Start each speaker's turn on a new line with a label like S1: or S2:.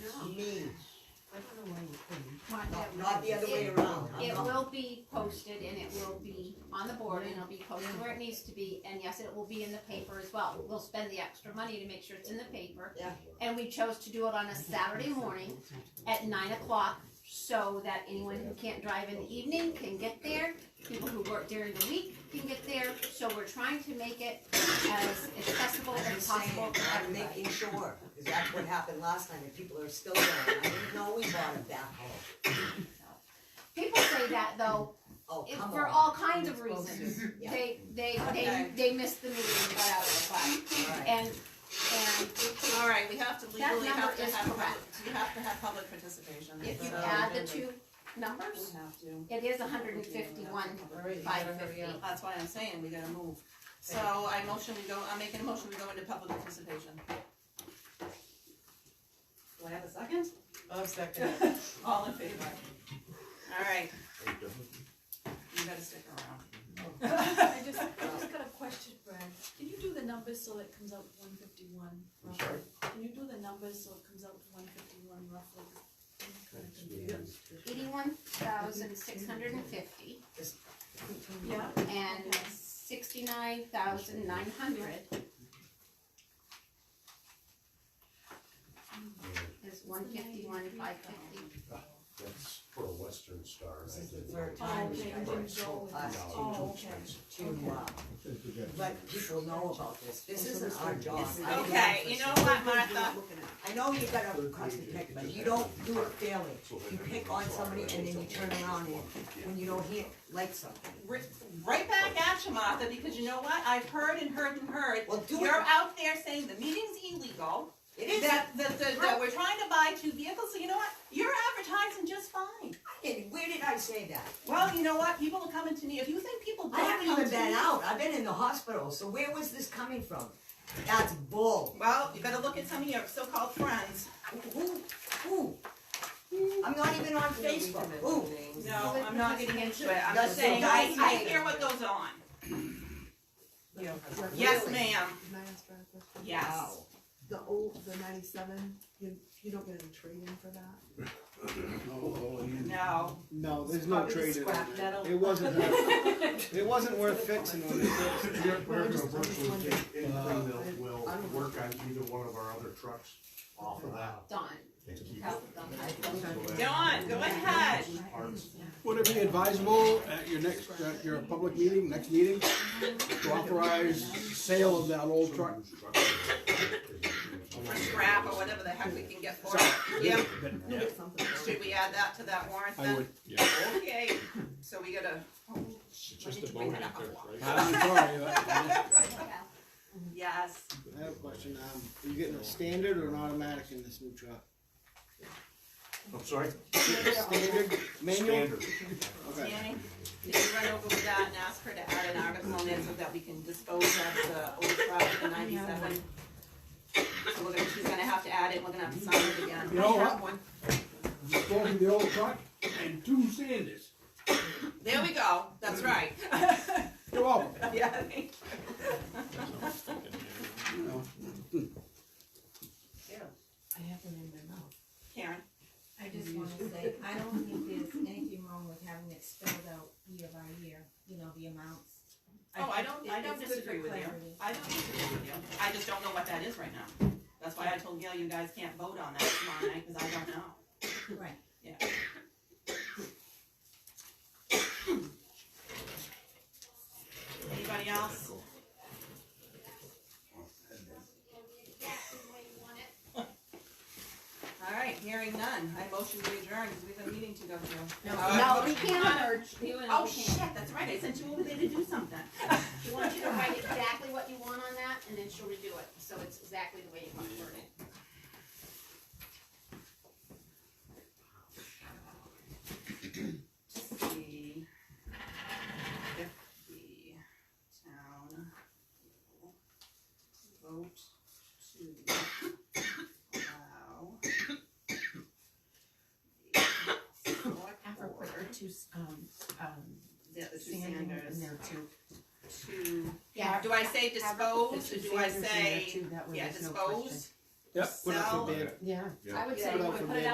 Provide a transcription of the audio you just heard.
S1: other way would
S2: Not-
S1: Not-
S2: Not the other way around. I'm
S3: It
S2: not-
S3: will be posted and it will be on the board and it'll be posted where it needs to be, and yes, it will be in the paper as well. We'll spend the extra money to make sure it's in the paper.
S2: Yeah.
S3: And we chose to do it on a Saturday morning at nine o'clock, so that anyone who can't drive in the evening can get there. People who work during the week can get there, so we're trying to make it as accessible
S2: I'm
S3: as
S2: just saying,
S3: possible for
S2: I'm
S3: everybody.
S2: making sure, cause that's what happened last time, and people are still there, I didn't know we bought a backhoe.
S3: People say that though,
S2: Oh,
S3: it-
S2: come
S3: for
S2: on.
S3: all kinds of reasons.
S2: Yeah.
S3: They, they, they,
S4: Okay.
S3: they missed the meeting and got out of the class.
S2: Alright,
S3: And, and
S4: All right, we have to
S3: That
S4: legally have
S3: number
S4: to
S3: is
S4: have,
S3: correct.
S4: public- you have to have public participation.
S3: if you
S2: uh,
S4: so-
S3: add the two
S4: We
S3: numbers,
S4: have to.
S3: it is hundred and fifty-one, five fifty.
S4: That's why I'm saying we gotta move. So I motion we go, I'm making a motion to go into public participation. Do I have a second?
S5: I'll second it.
S4: All in favor? All right. You gotta stick around.
S6: I just, I just got a question, Brad. Can you do the numbers so it comes out to one fifty-one?
S7: I'm sorry?
S6: Can you do the numbers so it comes out to one fifty-one roughly? I'm kinda confused.
S3: Eighty-one thousand six hundred and fifty
S6: Yeah,
S3: and sixty-nine thousand nine hundred
S2: Mm.
S3: is one fifty-one, five fifty.
S7: That's for a Western Star.
S2: This
S7: I
S2: is the
S7: think.
S2: third
S6: oh,
S2: time
S6: okay,
S2: we've
S6: you didn't go with
S2: us
S6: that.
S2: to,
S6: Oh, okay.
S2: to, uh, let people know about this, this isn't our job.
S4: Okay, you know what, Martha?
S2: I know you got a custom pick, but you don't do it fairly, you pick on somebody and then you turn around and, when you don't hear, like something.
S4: Ri- Right back at you, Martha, because you know what? I've heard and heard and heard.
S2: Well, do it.
S4: You're out there saying the meeting's illegal.
S2: It is,
S4: That, that, that, that we're trying to buy two vehicles, so you know what, you're advertising just fine.
S2: where did I say that?
S4: Well, you know what, people are coming to me, if you think people don't
S2: I
S4: come to
S2: haven't
S4: me.
S2: even been out. I've been in the hospital. So where was this coming from? That's bull.
S4: Well, you better look at some of your so-called friends.
S2: Who? Who? I'm not even on Facebook. Who?
S4: No,
S3: Well,
S4: I'm not
S3: because
S4: getting
S3: you
S4: into
S3: can't-
S4: it, I'm
S2: That's
S4: just saying,
S2: so
S4: I, I
S2: nice.
S4: hear what goes on.
S5: Yeah.
S4: Yes,
S2: Really?
S4: ma'am,
S5: Can I ask Brad a question? Uh,
S4: yes.
S2: Wow.
S5: The old, the ninety-seven, you, you don't get a trade-in for that?
S4: No,
S8: No, there's no
S4: Probably
S8: trade in
S4: scrap metal.
S8: it. It wasn't worth, it wasn't worth fixing when it
S7: We're we're gonna
S5: I'm
S7: work
S5: just
S7: with
S5: wondering.
S7: Dick and
S8: Uh,
S7: Greenville. We'll
S5: I don't-
S7: work on either one of our other trucks off of that
S3: Done,
S7: and keep.
S3: Tell them.
S4: Dawn, go ahead.
S7: Parts.
S8: Would it be advisable at your next, at your public meeting, next meeting, to authorize sale of that old truck?
S4: or scrap or whatever the heck we can get for it. Yep,
S8: Yeah,
S4: should we add that to that warrant then?
S8: I would, yeah.
S4: Okay, so we gotta, oh, shit, I need to bring that up a lot.
S8: I'm sorry, but-
S3: yeah.
S4: Yes.
S8: I have a question, um, are you getting a standard or an automatic in this new truck?
S7: I'm sorry?
S8: Standard, manual?
S7: Standard.
S8: Okay.
S4: Tammy, did you run over with that and ask her to add an article on there so that we can dispose of the old truck, the ninety-seven? So we're gonna, she's gonna have to add it, we're gonna have to sign it again.
S8: You know what?
S4: One.
S8: Both of the old truck and two Sanders.
S4: There we go, that's right.
S8: You're welcome.
S4: Yeah, thank
S8: You know,
S4: you.
S5: I have them in my mouth.
S4: Karen,
S9: I just wanna say, I don't think there's anything wrong with having it spelled out year by year, you know, the amounts.
S4: Oh, I
S9: think
S4: don't-
S9: it-
S4: I don't
S9: it's good for
S4: disagree with you.
S9: clarity.
S4: I don't disagree with you, I just don't know what that is right now. That's why I told Gail, you guys can't vote on that tomorrow night, cause I don't know.
S9: Right.
S4: Yeah. Anybody else? All right, hearing none, I motion to adjourn, because we have a meeting to go to.
S3: No, we can't urge you and we
S4: Oh,
S3: can't.
S4: shit, that's right, I sent you over there to do something.
S3: She wants you to write exactly what you want on that, and then she'll redo it, so it's exactly the way you want it worded.
S4: Let's see. If the town will vote to allow the select
S9: After
S4: board,
S9: put two, um, um,
S4: the the two
S9: Sanders in
S4: Sanders,
S9: there too.
S4: to,
S3: Yeah.
S4: do I say
S9: The
S4: dispose, or
S9: two
S4: do I
S9: Sanders in there
S4: say,
S9: too, that way
S4: yeah,
S9: there's no
S4: dispose?
S9: question.
S8: Yep, put it out for
S4: Sell.
S8: bid.
S9: Yeah.
S3: I would
S4: Yeah.
S3: say, put it out